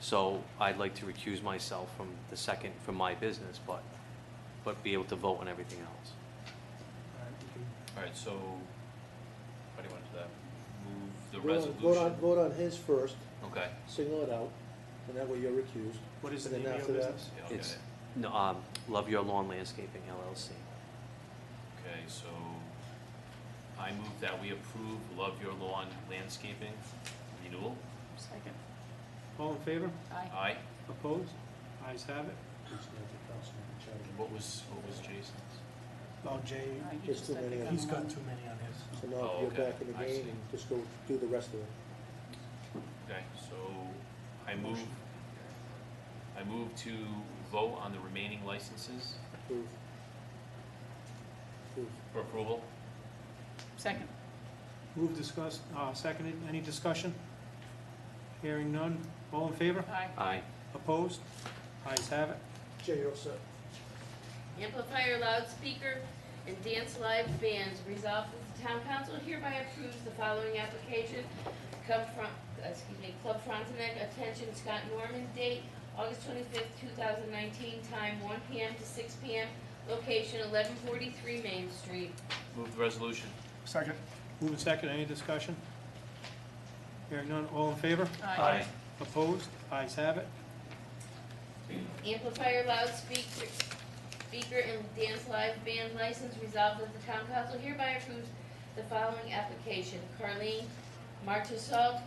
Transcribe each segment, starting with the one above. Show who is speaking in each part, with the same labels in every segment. Speaker 1: So I'd like to recuse myself from the second, from my business, but, but be able to vote on everything else.
Speaker 2: Alright, so, how do you wanna do that? Move the
Speaker 3: Vote on- Vote on,
Speaker 2: resolution?
Speaker 3: vote on his first,
Speaker 2: Okay,
Speaker 3: single it out, and that way you're recused.
Speaker 4: What is the
Speaker 3: And then
Speaker 4: name of
Speaker 3: after
Speaker 4: your
Speaker 3: that-
Speaker 4: business?
Speaker 2: yeah, I'll get
Speaker 1: It's,
Speaker 2: it.
Speaker 1: no, um, Love Your Lawn Landscaping LLC.
Speaker 2: Okay, so, I move that we approve Love Your Lawn Landscaping renewal.
Speaker 5: Second.
Speaker 4: All in favor?
Speaker 3: Uh,
Speaker 5: Aye.
Speaker 2: Aye.
Speaker 4: Opposed? Ayes have it.
Speaker 2: And what was, what was Jason's?
Speaker 6: Oh, Jay,
Speaker 5: Aye, he
Speaker 3: Just too
Speaker 5: said the
Speaker 3: many.
Speaker 5: gun
Speaker 6: he's
Speaker 5: one.
Speaker 6: got too many on his.
Speaker 3: So now
Speaker 2: Oh,
Speaker 3: you're
Speaker 2: okay.
Speaker 3: back in the
Speaker 2: I
Speaker 3: game
Speaker 2: see.
Speaker 3: and just go do the rest of it.
Speaker 2: Okay, so, I move, I move to vote on the remaining licenses
Speaker 3: Approve. Approve.
Speaker 2: for approval.
Speaker 5: Second.
Speaker 4: Move discuss, uh, seconded. Any discussion? Hearing none. All in favor?
Speaker 5: Aye.
Speaker 1: Aye.
Speaker 4: Opposed? Ayes have it.
Speaker 3: Jay, you're all set.
Speaker 7: Amplifier loudspeaker and dance live bands. Resolved that the town council hereby approves the following application. Come from, excuse me, Club Frontenac, attention Scott Norman, date August twenty-fifth, two thousand nineteen, time one P M. to six P M. Location eleven forty-three Main Street.
Speaker 2: Move the resolution.
Speaker 6: Second.
Speaker 4: Move and second. Any discussion? Hearing none. All in favor?
Speaker 5: Aye.
Speaker 4: Opposed? Ayes have it.
Speaker 7: Amplifier loudspeaker, speaker and dance live band license resolved that the town council hereby approves the following application. Carlene Martusalt,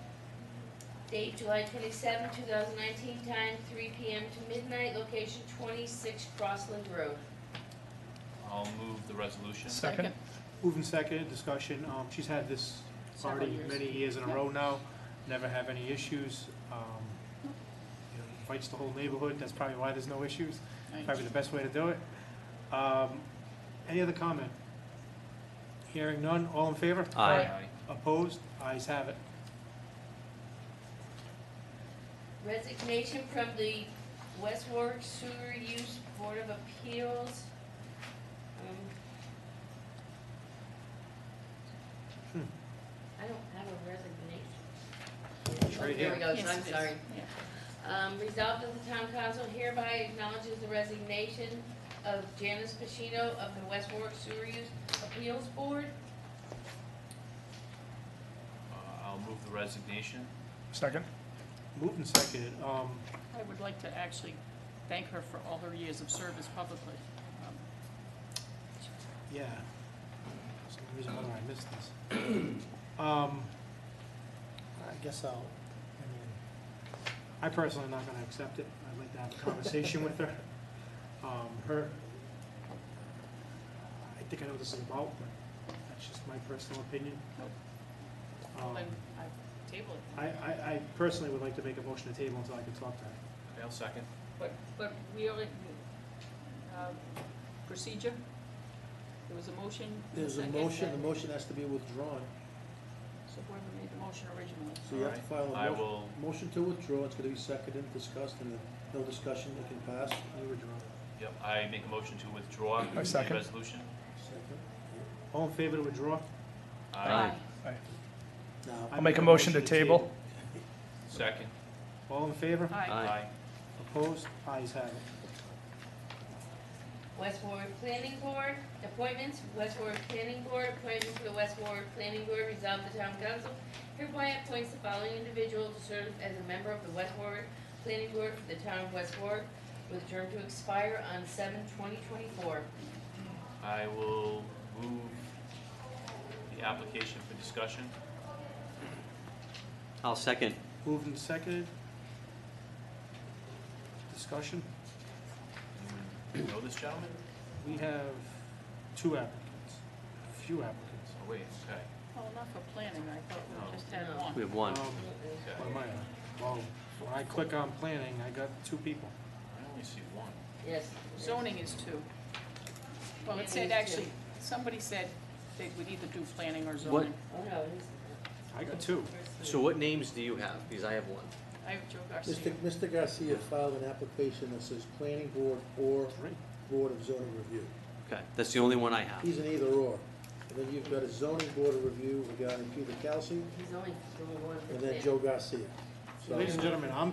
Speaker 7: date July twenty-seven, two thousand nineteen, time three P M to midnight, location twenty-six Crossland Road.
Speaker 2: I'll move the resolution.
Speaker 6: Second.
Speaker 4: Move and seconded. Discussion. Um, she's had this
Speaker 5: Several
Speaker 4: already
Speaker 5: years.
Speaker 4: many years in a
Speaker 5: Yep.
Speaker 4: row now. Never have any issues. Um, you know, Invites the whole neighborhood. That's probably why there's no issues.
Speaker 5: Aye.
Speaker 4: Probably the best way to do it. Um, Any other comment? Hearing none, all in favor?
Speaker 1: Aye.
Speaker 4: Opposed? Ayes have it.
Speaker 7: Resignation from the West Warwick Sewer Use Board of Appeals. Um,
Speaker 4: Hmm.
Speaker 7: I don't have a resignation.
Speaker 4: It's right
Speaker 7: There
Speaker 4: here.
Speaker 7: we go,
Speaker 5: Yes,
Speaker 7: I'm
Speaker 5: it is.
Speaker 7: sorry.
Speaker 5: Yeah.
Speaker 7: Um, resolved that the town council hereby acknowledges the resignation of Janice Pacino of the West Warwick Sewer Use Appeals Board.
Speaker 2: Uh, I'll move the resignation.
Speaker 6: Second.
Speaker 4: Moved and seconded. Um,
Speaker 5: I would like to actually thank her for all her years of service publicly. Um,
Speaker 4: yeah. For some reason, why I missed this. Um,
Speaker 6: I guess I'll, I mean,
Speaker 4: I personally am not gonna accept it. I'd like to have a conversation with her. Um, her, I think I know what this is about, but that's just my personal opinion.
Speaker 5: Nope.
Speaker 4: Um,
Speaker 5: Well, then, I table it.
Speaker 4: I, I, I personally would like to make a motion to table until I can talk to her.
Speaker 2: Okay, I'll second.
Speaker 5: But, but we already, um, procedure? There was a motion.
Speaker 3: There's a
Speaker 5: second,
Speaker 3: motion, the
Speaker 5: and
Speaker 3: motion has to be withdrawn,
Speaker 5: So whoever made the motion originally.
Speaker 3: so you have to
Speaker 2: Alright,
Speaker 3: file
Speaker 2: I
Speaker 3: a motion.
Speaker 2: will,
Speaker 3: Motion to withdraw, it's gonna be seconded, discussed, and if no discussion, it can pass.
Speaker 4: You were drawn.
Speaker 2: yep, I make a motion to withdraw the
Speaker 6: I second.
Speaker 2: resolution.
Speaker 3: Second.
Speaker 4: All in favor to withdraw?
Speaker 2: I
Speaker 3: Now,
Speaker 4: I
Speaker 6: I'll make a motion to table.
Speaker 2: Second.
Speaker 4: All in favor?
Speaker 5: Aye.
Speaker 1: Aye.
Speaker 4: Opposed? Ayes have it.
Speaker 7: West Warwick Planning Board, appointments, West Warwick Planning Board, appointment for the West Warwick Planning Board, resolved the town council hereby appoints the following individual to serve as a member of the West Warwick Planning Board for the town of West Warwick, with a term to expire on seven twenty twenty-four.
Speaker 2: I will move the application for discussion.
Speaker 1: I'll second.
Speaker 4: Moved and seconded. Discussion.
Speaker 2: Anyone know this gentleman?
Speaker 4: We have two applicants, few applicants.
Speaker 2: Oh, wait, okay,
Speaker 5: Well, not for planning, I thought
Speaker 2: No.
Speaker 5: we just had
Speaker 7: No.
Speaker 5: one.
Speaker 1: We have one.
Speaker 4: Um,
Speaker 2: okay.
Speaker 4: What am I on? Well, when I click on planning, I got two people.
Speaker 2: I only see one.
Speaker 7: Yes.
Speaker 5: Zoning is two. Well, it
Speaker 7: Planning
Speaker 5: said
Speaker 7: is
Speaker 5: actually, somebody said they would either do planning or zoning.
Speaker 7: Oh, no, it is.
Speaker 4: I got two.
Speaker 1: So what names do you have? Because I have one.
Speaker 5: I have Joe Garcia.
Speaker 3: Mr. Mr. Garcia filed an application that says planning board or
Speaker 4: Three.
Speaker 3: board of zoning review.
Speaker 1: Okay, that's the only one I have.
Speaker 3: He's an either or. And then you've got a zoning board of review regarding Peter Kelsey
Speaker 7: He's only, he's only one.
Speaker 3: and then Joe Garcia. So-
Speaker 4: Ladies and gentlemen, I'm